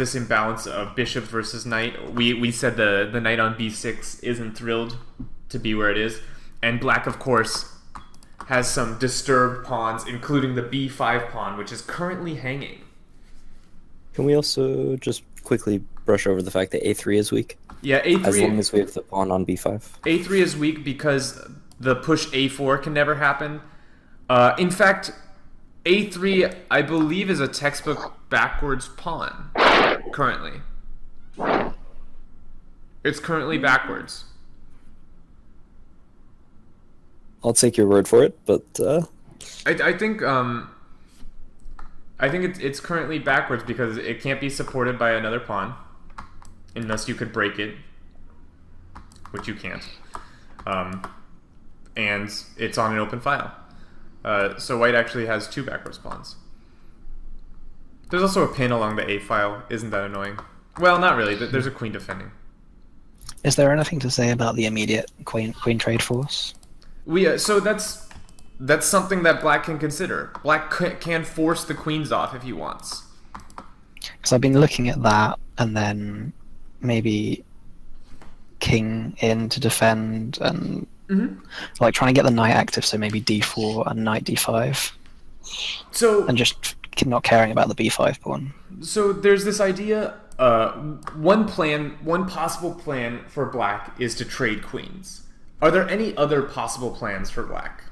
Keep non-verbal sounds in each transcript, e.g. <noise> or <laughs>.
this imbalance of bishop versus knight. We we said the the knight on b6 isn't thrilled to be where it is, and black of course has some disturbed pawns, including the b5 pawn, which is currently hanging. Can we also just quickly brush over the fact that a3 is weak? Yeah, a3 As long as we have the pawn on b5. a3 is weak because the push a4 can never happen. Uh, in fact, a3 I believe is a textbook backwards pawn currently. It's currently backwards. I'll take your word for it, but uh, I, I think um, I think it's it's currently backwards because it can't be supported by another pawn, unless you could break it, which you can't. Um, and it's on an open file, uh, so white actually has two backwards pawns. There's also a pin along the a file. Isn't that annoying? Well, not really. There- There's a queen defending. Is there anything to say about the immediate queen queen trade force? We uh, so that's that's something that black can consider. Black c- can force the queens off if he wants. Because I've been looking at that, and then maybe king in to defend, and like trying to get the knight active. So maybe d4 and knight d5, So and just not caring about the b5 pawn. so there's this idea uh, one plan one possible plan for black is to trade queens are there any other possible plans for black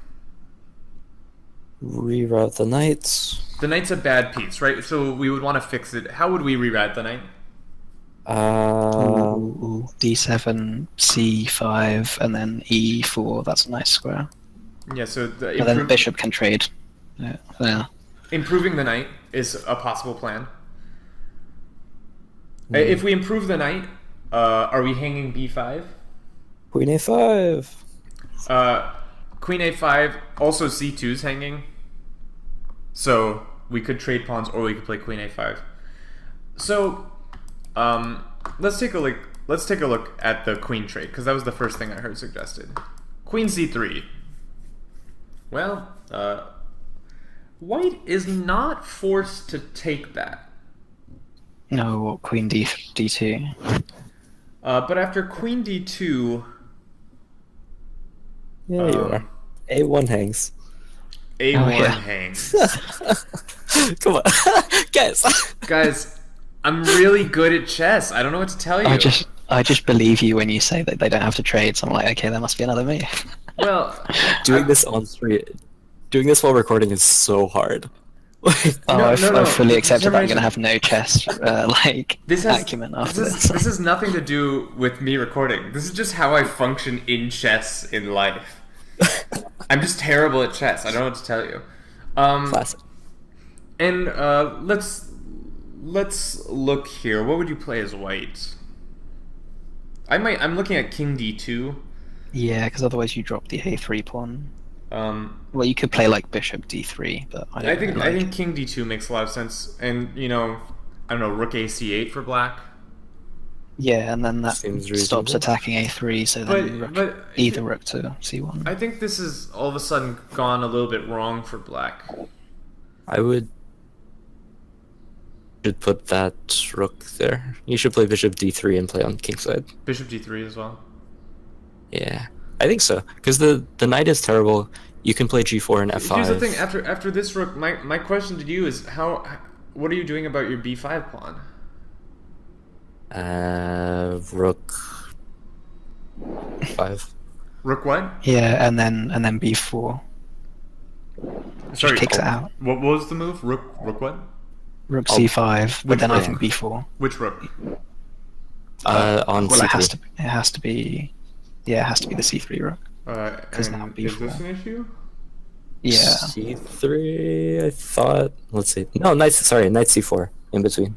reroute the knights. the knight's a bad piece right so we would want to fix it how would we reroute the knight Um, Ooh, d7, c5, and then e4. That's a nice square. yeah so the, And then improve- bishop can trade. Yeah. yeah. improving the knight is a possible plan Uh, if we improve the knight uh, are we hanging b5 queen a5. Uh, queen a5, also c2's hanging. So we could trade pawns or we could play queen a5. So um, let's take a look. Let's take a look at the queen trade because that was the first thing I heard suggested. Queen c3. Well, uh, white is not forced to take that. No, queen d d2. Uh, but after queen d2, Yeah, you Um, are. A1 hangs. a1 yeah. hangs. <laughs> Come on, <laughs> guess. Guys, I'm really good at chess. I don't know what to tell you. I just I just believe you when you say that they don't have to trade. So I'm like, okay, there must be another move. Well, Doing this on stream, doing this while recording is so <laughs> hard. Um, Like, Oh, No, I've, no, no, I've fully for accepted some that I'm going reason- to have no chess uh, <laughs> like this has, acumen after this. this. <laughs> Is, this has nothing to do with me recording. This is just how I function in chess in life. I'm just terrible at chess. I don't know what to tell you. Um, <laughs> Classic. and uh, let's let's look here. What would you play as white? I might. I'm looking at King D2. Yeah, because otherwise you drop the a3 pawn. Um, Well, you could play like bishop d3, but I, don't I think really I like think King D2 makes a lot of sense. And you know, I don't know. Rook AC8 for black. Yeah, and then that Seems stops reasonable. attacking attacking a3, so then But rook, but either rook to c1. I think this is all of a sudden gone a little bit wrong for black. I would should put that rook there. You should play bishop d3 and play on king side. Bishop d3 as well. Yeah, I think so. Because the the knight is terrible. You can play g4 and f5. Here's the thing: after after this rook, my my question to you is how, what are you doing about your b5 pawn? Uh, rook five. <laughs> Rook what? Yeah, and then and then b4 Sorry, oh. kicks it out. What was the move? Rook rook what? Rook Oh. c5, but then I rook? think b4. Which rook? Uh, on Well, c3. it has to. It has to be. Yeah, it has to be the c3 rook. Uh, 'Cause and now is b4. this an issue? Yeah. c3. I thought. Let's see. No, knight. Sorry, knight c4 in between.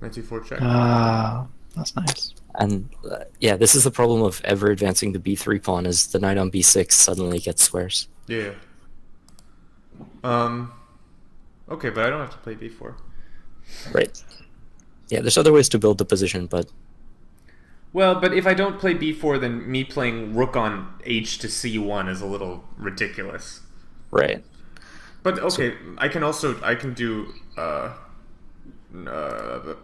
Knight c4 check. Ah, that's nice. And uh, yeah, this is the problem of ever advancing the b3 pawn is the knight on b6 suddenly gets squares. yeah. Um. Okay, but I don't have to play b4. Right. Yeah, there's other ways to build the position, but Well, but if I don't play b4, then me playing rook on h to c1 is a little ridiculous. right. But okay, I can also I can do uh, uh